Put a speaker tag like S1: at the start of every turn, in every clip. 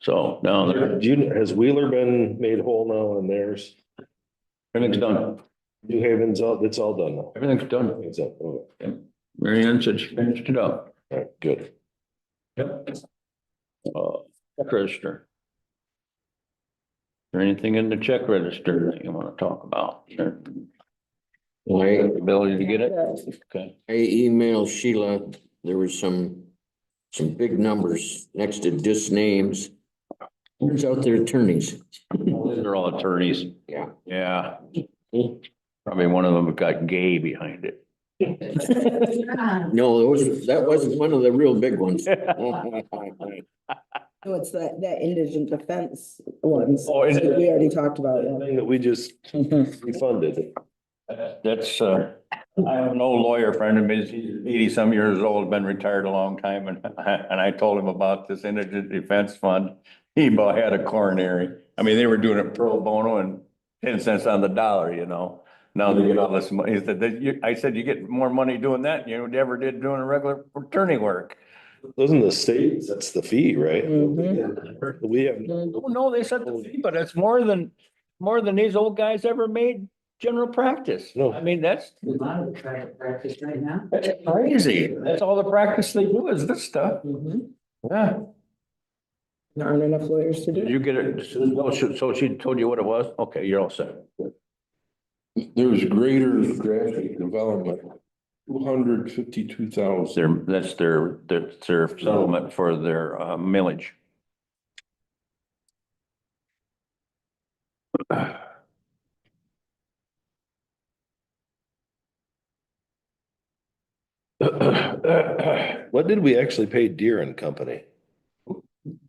S1: So now they're-
S2: Do you, has Wheeler been made whole now and theirs?
S1: everything's done.
S2: New Haven's all, it's all done now.
S1: Everything's done.
S2: It's up. Oh. All
S1: Mary Ann said she finished it up.
S2: right, good.
S1: Yep. Uh, check register. Is there anything in the check register that you want to talk about? Or
S3: I,
S1: Ability to get it? Okay.
S3: I emailed Sheila, there was some, some big numbers next to just names. Turns out they're attorneys.
S1: These are all attorneys.
S3: Yeah.
S1: Yeah. Probably one of them got gay behind it.
S3: No, those, that wasn't one of the real big ones.
S4: No, Oh, it's that, that indigent defense ones.
S1: Oh, is it?
S4: We already talked about
S2: That
S4: it.
S2: thing that we just refunded.
S1: That's, uh, I have an old lawyer friend of his, eighty-some years old, been retired a long time, and I, and I told him about this indigent defense fund. He about had a coronary. I mean, they were doing it pro bono and ten cents on the dollar, you know? Now they get all this money. He said, that you, I said, you get more money doing that than you ever did doing a regular attorney work.
S2: Doesn't the state, that's the fee, right? We have,
S1: Oh, No, they said, the fee, but it's more than, more than these old guys ever made general practice.
S2: No.
S1: I mean, that's
S5: A lot of private practice right now.
S1: That's crazy. That's all the practice they do is this stuff.
S5: Mhm.
S1: Yeah.
S4: There aren't enough lawyers to do
S1: Did
S4: it.
S1: you get it? Oh, So she- so she told you what it was? Okay, you're all set.
S6: There's greater graphic development, two hundred fifty-two thousand.
S1: Their, that's their, that's their settlement for their uh, millage.
S2: what did we actually pay Deere and Company?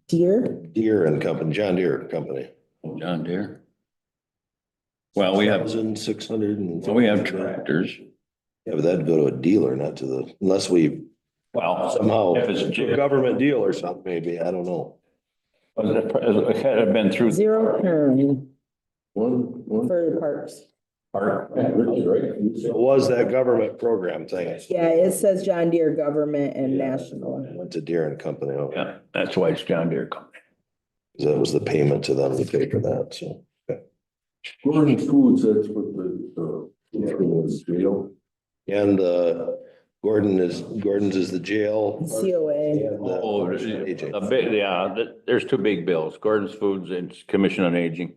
S4: Deer,
S2: Deere and Company, John Deere and Company.
S1: John Deere. Well, Uh, we have,
S2: Thousand six hundred and.
S1: so we have tractors.
S2: Yeah, but that'd go to a dealer, not to the, unless we
S1: Well,
S2: somehow,
S1: Uh, if it's
S2: a government deal or something, maybe, I don't know.
S1: it had been through the
S4: zero turn
S6: One, one.
S4: for parks.
S1: park.
S2: It was that government program thing.
S4: Yeah, it says John Deere Government and National.
S2: Went to Deere and Company, oh,
S1: Yeah, that's why it's John Deere Company.
S2: that was the payment to them to pay for that, so.
S6: Gordon Foods, that's what the, uh, it was, you know.
S2: And uh, Gordon is, Gordon's is the jail.
S4: COA.
S2: and, uh,
S1: Oh,
S2: AJ.
S1: a big, yeah, th- there's two big bills, Gordon's Foods and Commission on Aging.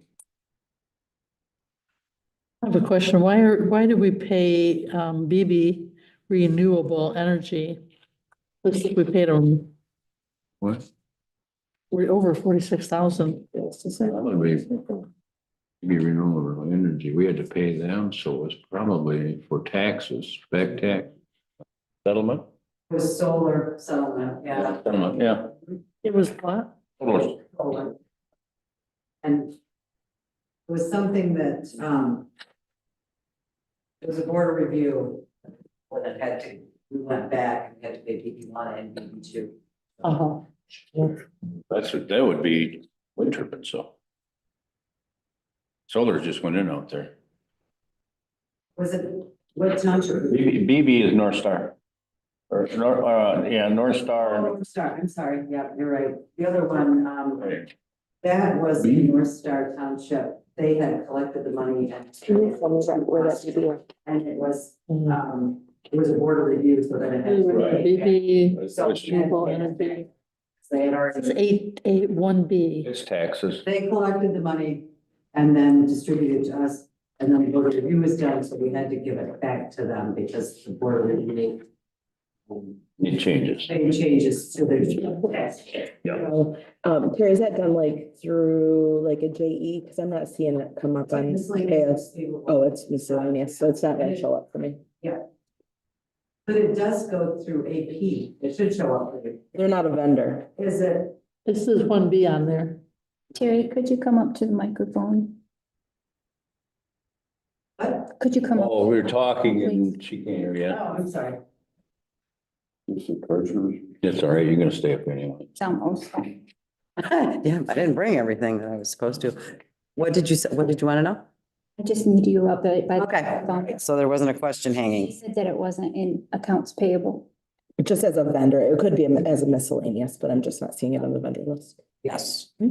S7: I have a question. Why are, why do we pay um, BB Renewable Energy? Looks like we paid them,
S1: What?
S7: we're over forty-six thousand.
S1: That would be, be renewable energy, we had to pay them, so it was probably for taxes, back tax. Settlement?
S5: With solar settlement, yeah.
S1: Settlement, yeah.
S7: It was what?
S1: Almost.
S5: Solar. And it was something that, um, it was a board review when it had to, we went back and had to pay DP one and DP two.
S7: Uh-huh.
S1: That's, that would be wind turbine, so. Solar just went in out there.
S5: Was it, what township?
S1: BB, BB is North Star. Or, Nor- uh, yeah, North Star.
S5: Oh, I'm sorry, I'm sorry, yeah, you're right. The other one, um, that was the North Star Township. They had collected the money and. And it was, um, it was a board review, so then it had. to-
S6: Right.
S7: BB
S5: So
S7: Renewable Energy,
S5: They had
S7: it's
S5: already,
S7: eight, eight, one B.
S1: It's taxes.
S5: they collected the money and then distributed to us. And then the board review was done, so we had to give it back to them because the board review. um,
S1: It changes.
S5: Made changes to their tax.
S4: So, Um, Terry, is that done like through like a JE? Cause I'm not seeing it come up on KS. Oh, it's miscellaneous, so it's not gonna show up for me.
S5: But it does go through AP. It should show up for you.
S4: They're not a vendor.
S5: Is it?
S7: This is one B on there.
S8: Terry, could you come up to the microphone?
S5: What?
S8: Could you come up?
S1: Oh, we were talking and she can't hear you.
S5: Oh, I'm sorry.
S6: This is Carter's.
S1: That's all right, you're gonna stay up anyway.
S8: It's almost.
S9: Yeah, I didn't bring everything that I was supposed to. What did you, s- what did you want to know?
S8: I just need you up by. by the
S9: Okay.
S8: microphone.
S9: So there wasn't a question
S8: She
S9: hanging.
S8: said that it wasn't in accounts payable.
S4: Just as a vendor, it could be as a miscellaneous, but I'm just not seeing it on the vendor list.
S9: Yes.